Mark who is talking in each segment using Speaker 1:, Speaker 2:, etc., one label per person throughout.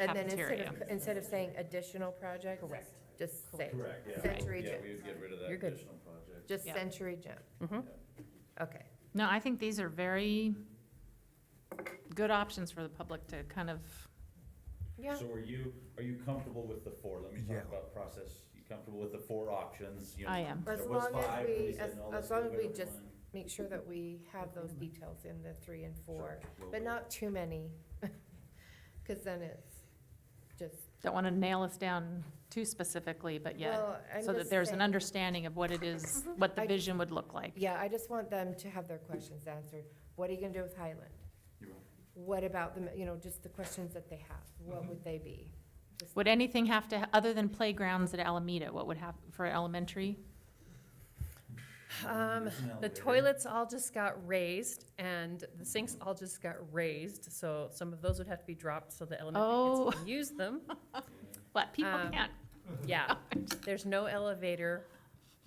Speaker 1: And then instead
Speaker 2: cafeteria.
Speaker 1: of, instead of saying additional projects?
Speaker 2: Correct.
Speaker 1: Just say
Speaker 3: Correct, yeah.
Speaker 1: Century
Speaker 3: Yeah,
Speaker 1: Gym.
Speaker 3: we would get rid of that
Speaker 1: You're good.
Speaker 3: additional project.
Speaker 1: Just
Speaker 2: Yeah.
Speaker 1: Century Gym?
Speaker 2: Mhm.
Speaker 1: Okay,
Speaker 2: No, I think these are very good options for the public to kind of,
Speaker 1: yeah,
Speaker 3: So are you, are you comfortable with the four? Let me
Speaker 4: Yeah.
Speaker 3: talk about process. You comfortable with the four options? You know,
Speaker 2: I am.
Speaker 3: there
Speaker 1: As
Speaker 3: was
Speaker 1: long as
Speaker 3: five,
Speaker 1: we-
Speaker 3: then said,
Speaker 1: as-
Speaker 3: no,
Speaker 1: as
Speaker 3: let's
Speaker 1: long
Speaker 3: get
Speaker 1: as
Speaker 3: rid
Speaker 1: we
Speaker 3: of
Speaker 1: just-
Speaker 3: one.
Speaker 1: make sure that we have those details in the three and four,
Speaker 3: Sure, we'll
Speaker 1: but
Speaker 3: wait.
Speaker 1: not too many. Because then it's just,
Speaker 2: don't want to nail us down too specifically, but yet,
Speaker 1: well, I'm
Speaker 2: so that
Speaker 1: just
Speaker 2: there's an
Speaker 1: saying-
Speaker 2: understanding of what it is, what the
Speaker 1: I-
Speaker 2: vision would look like.
Speaker 1: Yeah, I just want them to have their questions answered. What are you gonna do with Highland?
Speaker 3: You're right.
Speaker 1: What about the, you know, just the questions that they have? What would they be? Just-
Speaker 2: Would anything have to, other than playgrounds at Alameda, what would happen for elementary?
Speaker 5: Um,
Speaker 3: There's an
Speaker 5: The
Speaker 3: elevator.
Speaker 5: toilets all just got raised and the sinks all just got raised, so some of those would have to be dropped so the elementary kids
Speaker 2: Oh.
Speaker 5: can use them.
Speaker 2: What, people
Speaker 5: Um,
Speaker 2: can't,
Speaker 5: Yeah, there's no elevator,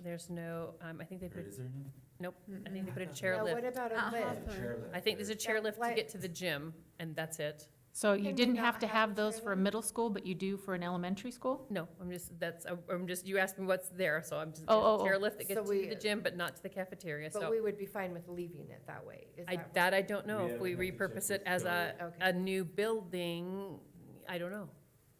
Speaker 5: there's no, um, I think they
Speaker 3: Or
Speaker 5: put,
Speaker 3: is there now?
Speaker 5: nope, I think they put a
Speaker 1: Now, what
Speaker 5: chairlift.
Speaker 1: about a
Speaker 2: Uh-huh.
Speaker 1: lift?
Speaker 3: Chairlift.
Speaker 5: I think there's a chairlift to
Speaker 1: Like-
Speaker 5: get to the gym and that's it.
Speaker 2: so you
Speaker 1: Can we
Speaker 2: didn't
Speaker 1: not
Speaker 2: have to
Speaker 1: have
Speaker 2: have those for a
Speaker 1: children?
Speaker 2: middle school, but you do for an elementary school?
Speaker 5: No, I'm just, that's, I'm- I'm just, you asked me what's there, so I'm just, there's
Speaker 2: Oh,
Speaker 5: a
Speaker 2: oh, oh.
Speaker 5: chairlift that
Speaker 1: So
Speaker 5: gets to
Speaker 1: we-
Speaker 5: the gym, but not to the cafeteria,
Speaker 1: But
Speaker 5: so.
Speaker 1: we would be fine with leaving it that way, is
Speaker 5: I,
Speaker 1: that?
Speaker 5: that I don't know, if
Speaker 3: We haven't
Speaker 5: we
Speaker 3: had to check
Speaker 5: repurpose it
Speaker 3: with
Speaker 5: as a,
Speaker 1: Joey. Okay.
Speaker 5: a new building, I don't know,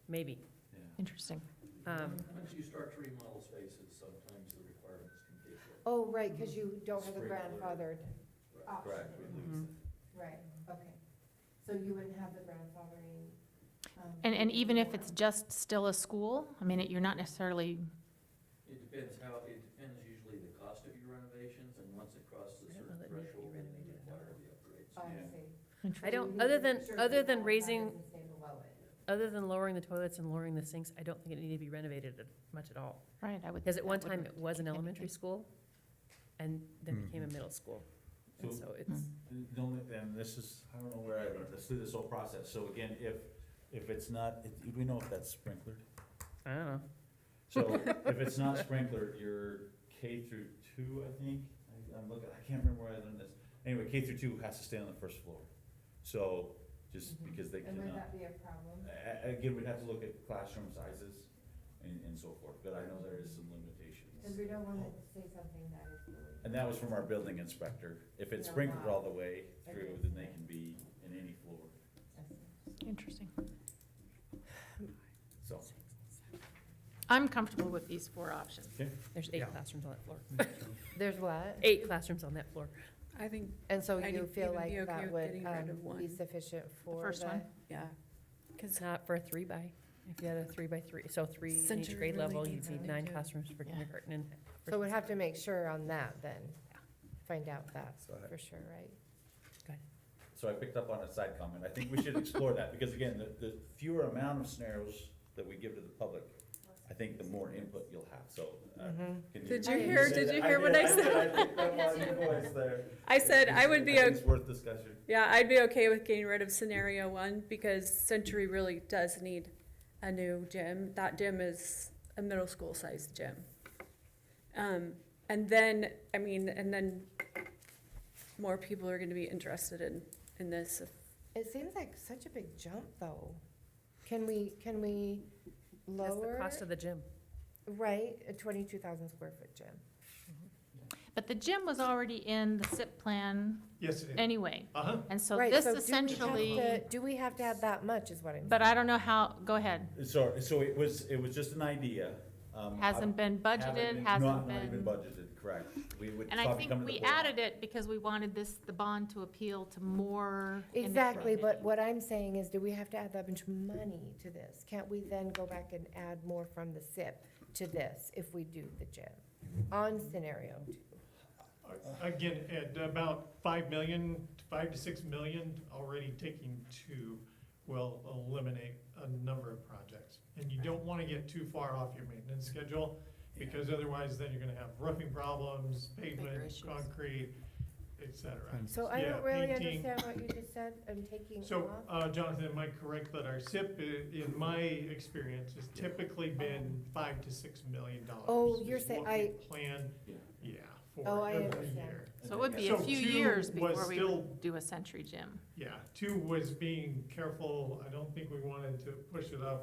Speaker 5: maybe.
Speaker 3: Yeah.
Speaker 2: Interesting.
Speaker 5: Um,
Speaker 6: Once you start to remodel spaces, sometimes the requirements can differ.
Speaker 1: Oh, right, because you don't have a
Speaker 6: Sprinkler.
Speaker 1: grandfathered option.
Speaker 3: Correct. we lose
Speaker 1: Mm-hmm.
Speaker 2: Mhm.
Speaker 1: Right, okay. So you wouldn't have the grandfathering. um,
Speaker 2: And, and even if it's just still a school, I mean, it- you're not necessarily,
Speaker 6: It depends how, it depends usually the cost of your renovations, and once it crosses a
Speaker 5: I don't know
Speaker 6: certain
Speaker 5: that Nikki
Speaker 6: threshold, then they
Speaker 5: renovated at all.
Speaker 6: require the upgrades.
Speaker 1: Oh, I
Speaker 5: Oh.
Speaker 3: Yeah.
Speaker 1: see.
Speaker 5: I
Speaker 1: So you
Speaker 5: don't,
Speaker 1: need
Speaker 5: other
Speaker 1: to make
Speaker 5: than,
Speaker 1: sure
Speaker 5: other
Speaker 1: that
Speaker 5: than
Speaker 1: that
Speaker 5: raising,
Speaker 1: doesn't stay below it.
Speaker 5: other than lowering the toilets and lowering the sinks, I don't think it needed to be renovated at- much at all.
Speaker 2: right, I would.
Speaker 5: Because at
Speaker 2: that
Speaker 5: one
Speaker 2: would
Speaker 5: time, it was an
Speaker 2: take
Speaker 5: elementary
Speaker 2: anything.
Speaker 5: school, and then became a middle school. And
Speaker 3: So-
Speaker 5: so it's,
Speaker 3: The only, and this is, I don't know where I learned this, through this whole process, so again, if, if it's not, if- do we know if that's sprinklered?
Speaker 5: I don't know.
Speaker 3: So if it's not sprinklered, you're K through two, I think, I- I'm looking, I can't remember where I learned this. Anyway, K through two has to stay on the first floor, so, just
Speaker 1: Mhm.
Speaker 3: because they
Speaker 1: And would
Speaker 3: cannot.
Speaker 1: that be a problem?
Speaker 3: A- a- Again, we'd have to look at classroom sizes and, and so forth, but I know there is some
Speaker 1: Because
Speaker 3: limitations.
Speaker 1: we don't want to say something that is really.
Speaker 3: And that was from our building inspector, if it's
Speaker 1: Yeah,
Speaker 3: sprinkled
Speaker 1: wow.
Speaker 3: all the way through, then they can be in any floor,
Speaker 2: Interesting.
Speaker 3: so.
Speaker 2: I'm comfortable with these four options.
Speaker 5: There's eight
Speaker 4: Yeah.
Speaker 5: classrooms on that floor.
Speaker 1: There's what?
Speaker 5: Eight classrooms on that floor.
Speaker 7: I think,
Speaker 1: And so
Speaker 7: I'd
Speaker 1: you
Speaker 7: even
Speaker 1: feel
Speaker 7: be
Speaker 1: like
Speaker 7: okay
Speaker 1: that
Speaker 7: with
Speaker 1: would
Speaker 7: getting rid
Speaker 1: um,
Speaker 7: of
Speaker 1: be
Speaker 7: one.
Speaker 1: sufficient for the?
Speaker 2: first one?
Speaker 7: yeah.
Speaker 5: It's not for a three by, if you had a three by three, so three in each
Speaker 7: Century
Speaker 5: grade
Speaker 7: really
Speaker 5: level,
Speaker 7: needs
Speaker 5: you'd need
Speaker 7: it.
Speaker 5: nine classrooms for
Speaker 2: Yeah.
Speaker 5: kindergarten and. for-
Speaker 1: So we'd have to make sure on that then,
Speaker 5: Yeah.
Speaker 1: find out that
Speaker 4: So I-
Speaker 1: for sure, right?
Speaker 3: So I picked up on a side comment. I think we should explore that, because again, the, the fewer amount of scenarios that we give to the public, I think the more input you'll have, so. uh,
Speaker 1: Mhm.
Speaker 3: can
Speaker 7: Mm-hmm. Did
Speaker 1: you hear-
Speaker 3: say
Speaker 7: did
Speaker 3: that?
Speaker 7: you hear what I
Speaker 3: did,
Speaker 7: said?
Speaker 3: I picked up on your voice there.
Speaker 7: I said I would be, o-
Speaker 3: It's worth discussion.
Speaker 7: yeah, I'd be okay with getting rid of scenario one because Century really does need a new gym. That gym is a middle school sized gym. Um, and then, I mean, and then more people are gonna be interested in, in this.
Speaker 1: It seems like such a big jump, though. Can we, can we
Speaker 5: That's the
Speaker 1: lower?
Speaker 5: cost of the gym.
Speaker 1: Right, a twenty-two thousand square foot gym.
Speaker 2: But the gym was already in the SIP plan
Speaker 4: Yes, it
Speaker 2: anyway.
Speaker 4: Uh-huh.
Speaker 2: And so
Speaker 1: Right,
Speaker 2: this
Speaker 1: do we have
Speaker 2: essentially,
Speaker 1: to- Do we have to have that much, is what I'm.
Speaker 2: but I don't know how, go ahead.
Speaker 3: Uh, So, so it was, it was just an idea. um,
Speaker 2: Hasn't been
Speaker 3: I- haven't
Speaker 2: budgeted,
Speaker 3: been-
Speaker 2: hasn't
Speaker 3: not- Not even
Speaker 2: been.
Speaker 3: budgeted, correct. We would
Speaker 2: And I
Speaker 3: probably
Speaker 2: think
Speaker 3: come to the
Speaker 2: we
Speaker 3: board.
Speaker 2: added it because we wanted this, the bond to appeal to more. in the
Speaker 1: Exactly, but
Speaker 2: community.
Speaker 1: what I'm saying is, do we have to add that much money to this? Can't we then go back and add more from the SIP to this if we do the gym on scenario two?
Speaker 4: Uh, Again, at about five million, five to six million, already taking two will eliminate a number of projects. And you don't wanna get too far off your maintenance schedule, because otherwise then you're gonna have roofing problems,
Speaker 7: Bigger
Speaker 4: pavement,
Speaker 7: issues.
Speaker 4: concrete, et cetera.
Speaker 1: So I
Speaker 4: Yeah,
Speaker 1: don't really
Speaker 4: painting.
Speaker 1: understand what you just said, I'm taking off.
Speaker 4: So, uh, Jonathan, am I correct that our SIP, i- in my experience, has typically been five to six million dollars?
Speaker 1: Oh, you're
Speaker 4: is
Speaker 1: saying-
Speaker 4: what we
Speaker 1: I-
Speaker 4: Plan,
Speaker 3: Yeah.
Speaker 4: yeah,
Speaker 1: Oh,
Speaker 4: for
Speaker 1: I
Speaker 4: every
Speaker 1: understand.
Speaker 4: year.
Speaker 2: So it would be a
Speaker 4: So
Speaker 2: few
Speaker 4: two
Speaker 2: years
Speaker 4: was
Speaker 2: before we
Speaker 4: still-
Speaker 2: would do a century gym.
Speaker 4: Yeah, two was being careful, I don't think we wanted to push it up